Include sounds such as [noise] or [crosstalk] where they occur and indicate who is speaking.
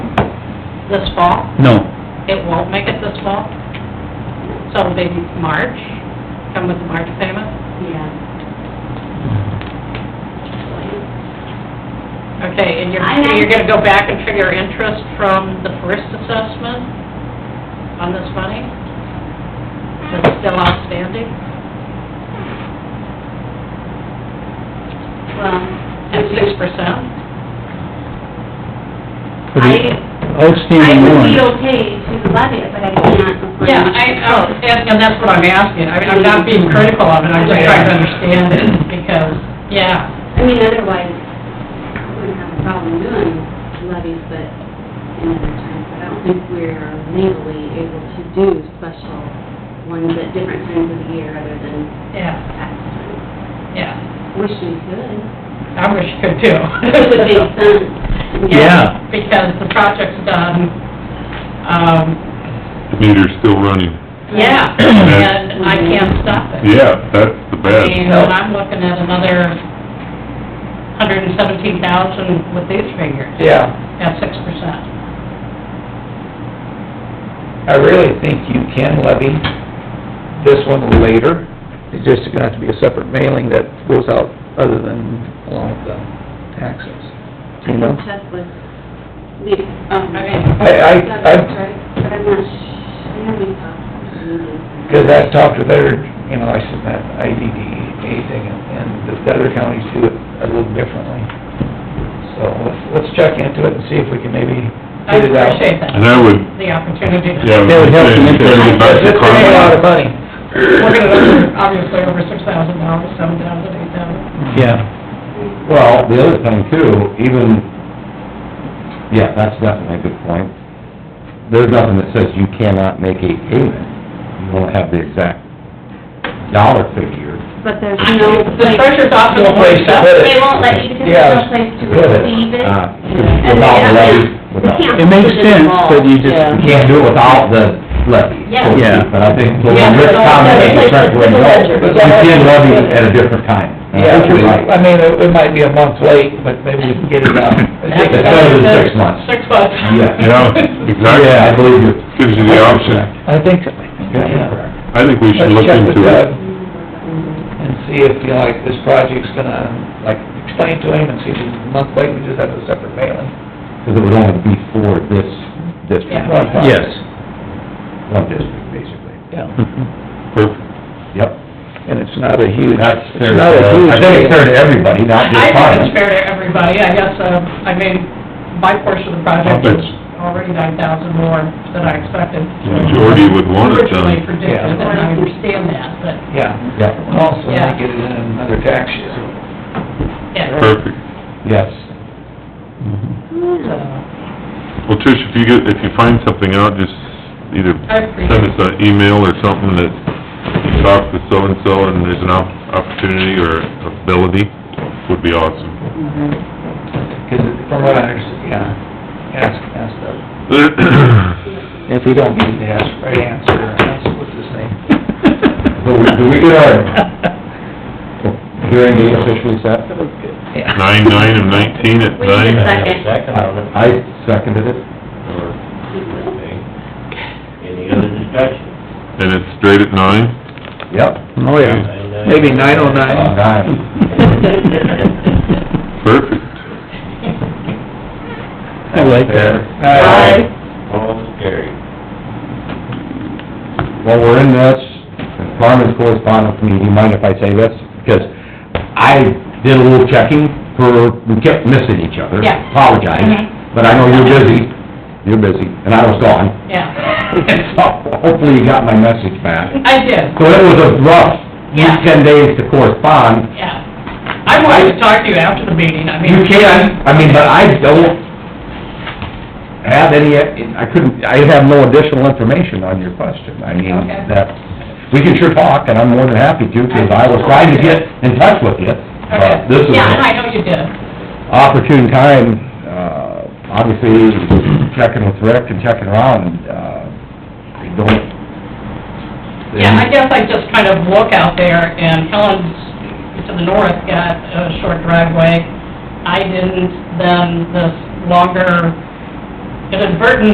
Speaker 1: this fall?
Speaker 2: No,
Speaker 1: It won't make it this fall? So maybe March, come with the March payment?
Speaker 3: Yeah.
Speaker 1: Okay, and you're,
Speaker 3: I have-
Speaker 1: you're gonna go back and trigger interest from the first assessment on this money? That's still outstanding? At
Speaker 3: Well,
Speaker 1: six percent?
Speaker 2: for the
Speaker 3: I
Speaker 2: outstanding
Speaker 3: would be
Speaker 2: warrant.
Speaker 3: okay to levy it, but I cannot.
Speaker 1: Yeah, I, I- and, and that's what I'm asking, I mean, I'm not being critical of it, I'm just trying to understand it, because, yeah,
Speaker 3: I mean, otherwise, I wouldn't have a problem doing levies, but in other times, but I don't think we're legally able to do special ones at different times of the year other than
Speaker 1: yeah,
Speaker 3: tax time.
Speaker 1: yeah,
Speaker 3: Wish we could.
Speaker 1: I wish you could too.
Speaker 3: It would make sense.
Speaker 1: [laughs]
Speaker 2: Yeah.
Speaker 1: Because the project's done, um,
Speaker 4: meter's still running.
Speaker 1: yeah, [clears throat] and I can't stop it.
Speaker 4: Yeah, that's the
Speaker 1: I
Speaker 4: bad.
Speaker 1: mean, when I'm looking at another hundred and seventeen thousand with these figures,
Speaker 5: Yeah,
Speaker 1: at six percent.
Speaker 5: I really think you can levy this one later. It's just gonna have to be a separate mailing that goes out other than along with the taxes, you know?
Speaker 3: Check with the, um.
Speaker 1: I mean-
Speaker 5: I, I,
Speaker 3: That's
Speaker 5: I,
Speaker 3: right, but I'm not, sh- I haven't talked.
Speaker 5: because I've talked with other, you know, I said that IDDA thing, and the other counties do it a little differently. So let's, let's check into it and see if we can maybe
Speaker 1: I
Speaker 5: get it out.
Speaker 1: appreciate that,
Speaker 4: And I would,
Speaker 1: the opportunity.
Speaker 4: yeah. I
Speaker 2: That would help
Speaker 4: say
Speaker 2: the interest.
Speaker 4: everybody back to
Speaker 5: It's gonna be a lot of money.
Speaker 1: We're gonna, look at, obviously, over six thousand dollars, seven thousand, eight thousand.
Speaker 2: Yeah,
Speaker 6: Well, the other thing too, even, yeah, that's definitely a good point. There's nothing that says you cannot make a payment. You don't have the exact dollar figure.
Speaker 3: But there's no
Speaker 1: The treasurer's office.
Speaker 5: No place to put it.
Speaker 3: They won't let you, because there's no place to
Speaker 6: Put it,
Speaker 3: receive it.
Speaker 6: uh,
Speaker 3: And they
Speaker 6: Without
Speaker 3: have-
Speaker 6: levy,
Speaker 3: yeah,
Speaker 6: without,
Speaker 3: they can't
Speaker 2: it makes
Speaker 3: put in the
Speaker 2: sense,
Speaker 3: law.
Speaker 2: but you just,
Speaker 6: you can't do it without the levy. so to speak.
Speaker 2: Yeah.
Speaker 6: But I think, so
Speaker 1: Yeah,
Speaker 6: when Rick
Speaker 1: no,
Speaker 6: commented,
Speaker 1: that's
Speaker 6: it's right where you go, you can levy it at a different time. And I
Speaker 5: Yeah,
Speaker 6: think you're right.
Speaker 5: I mean, it it might be a month late, but maybe we can get it [laughs] out.
Speaker 6: It's better than six months.
Speaker 1: Six bucks.
Speaker 6: Yeah.
Speaker 4: Yeah,
Speaker 1: [laughs]
Speaker 6: Yeah, I
Speaker 4: exactly.
Speaker 6: believe you.
Speaker 4: Gives you the option.
Speaker 5: I think, so.
Speaker 6: Yeah, you're
Speaker 5: yeah.
Speaker 6: correct.
Speaker 4: I think we should
Speaker 5: Let's
Speaker 4: look
Speaker 5: check with
Speaker 4: into
Speaker 5: Doug
Speaker 4: it.
Speaker 5: and see if, you know, like, this project's gonna, like, explain to him and see if it's a month late, we just have a separate mailing.
Speaker 6: Because it would only be for this district.
Speaker 5: Yeah.
Speaker 2: yes.
Speaker 6: One district, basically.
Speaker 5: Yeah.
Speaker 4: Perfect.
Speaker 6: Yep.
Speaker 5: And it's not a huge,
Speaker 6: That's fair.
Speaker 5: it's not a huge...
Speaker 6: I think it's fair to everybody,
Speaker 1: I
Speaker 6: not
Speaker 1: I
Speaker 6: just
Speaker 1: think it's
Speaker 6: ours.
Speaker 1: fair to everybody, I guess, uh, I mean, my portion of the project is already nine thousand more than I expected.
Speaker 4: The Majority would want it
Speaker 1: Originally
Speaker 4: done.
Speaker 1: predicted,
Speaker 5: Yeah.
Speaker 1: and I understand that, but,
Speaker 5: Yeah.
Speaker 6: Yep,
Speaker 5: Also,
Speaker 1: Yeah.
Speaker 5: not get it in another tax year.
Speaker 1: yeah,
Speaker 4: Perfect.
Speaker 6: yes.
Speaker 1: so,
Speaker 4: Well, Trish, if you get, if you find something out, just either
Speaker 1: I appreciate
Speaker 4: send us an email or something that you talked with so-and-so and there's an op- opportunity or ability, would be awesome. [clears throat]
Speaker 5: Because from what I understand, yeah, ask, ask Doug. If we don't get the ask- right answer, ask, what's his name?
Speaker 6: So we, do we get our
Speaker 5: [laughs]
Speaker 6: hearing date officially set?
Speaker 5: Yeah.
Speaker 4: Nine-nine and nineteen at
Speaker 3: We need a
Speaker 4: nine.
Speaker 3: second.
Speaker 6: I seconded it.
Speaker 7: Any other discussion?
Speaker 4: And it's straight at nine?
Speaker 6: Yep.
Speaker 2: Oh, yeah.
Speaker 5: Maybe nine oh
Speaker 6: Uh,
Speaker 5: nine.
Speaker 6: nine.
Speaker 4: Perfect.
Speaker 2: I like that.
Speaker 5: Aye.
Speaker 7: All carried.
Speaker 6: While we're in this, Carmen's correspondent to me, do you mind if I say this? Because I did a little checking for, we kept missing each other.
Speaker 1: Yeah.
Speaker 6: Apologize, but I know you're busy, you're busy, and I was gone. [laughs]
Speaker 1: yeah, [laughs]
Speaker 6: So hopefully you got my message back.
Speaker 1: I did,
Speaker 6: So it was a rough
Speaker 1: Yeah.
Speaker 6: ten days to correspond.
Speaker 1: yeah. I wanted to talk to you after the meeting, I mean.
Speaker 6: You can, I mean, but I don't have any, I couldn't, I have no additional information on your question. I mean,
Speaker 1: Okay.
Speaker 6: that, we can sure talk, and I'm more than happy to, because I was trying to get in touch with you.
Speaker 1: Okay.
Speaker 6: But Uh, this is
Speaker 1: Yeah, I
Speaker 6: an
Speaker 1: know you did,
Speaker 6: opportune time, uh, obviously, checking with Rick and checking around, uh, I don't...
Speaker 1: yeah, I guess I just kind of look out there, and Helen's to the north got a short driveway. I didn't, then this longer inadvertent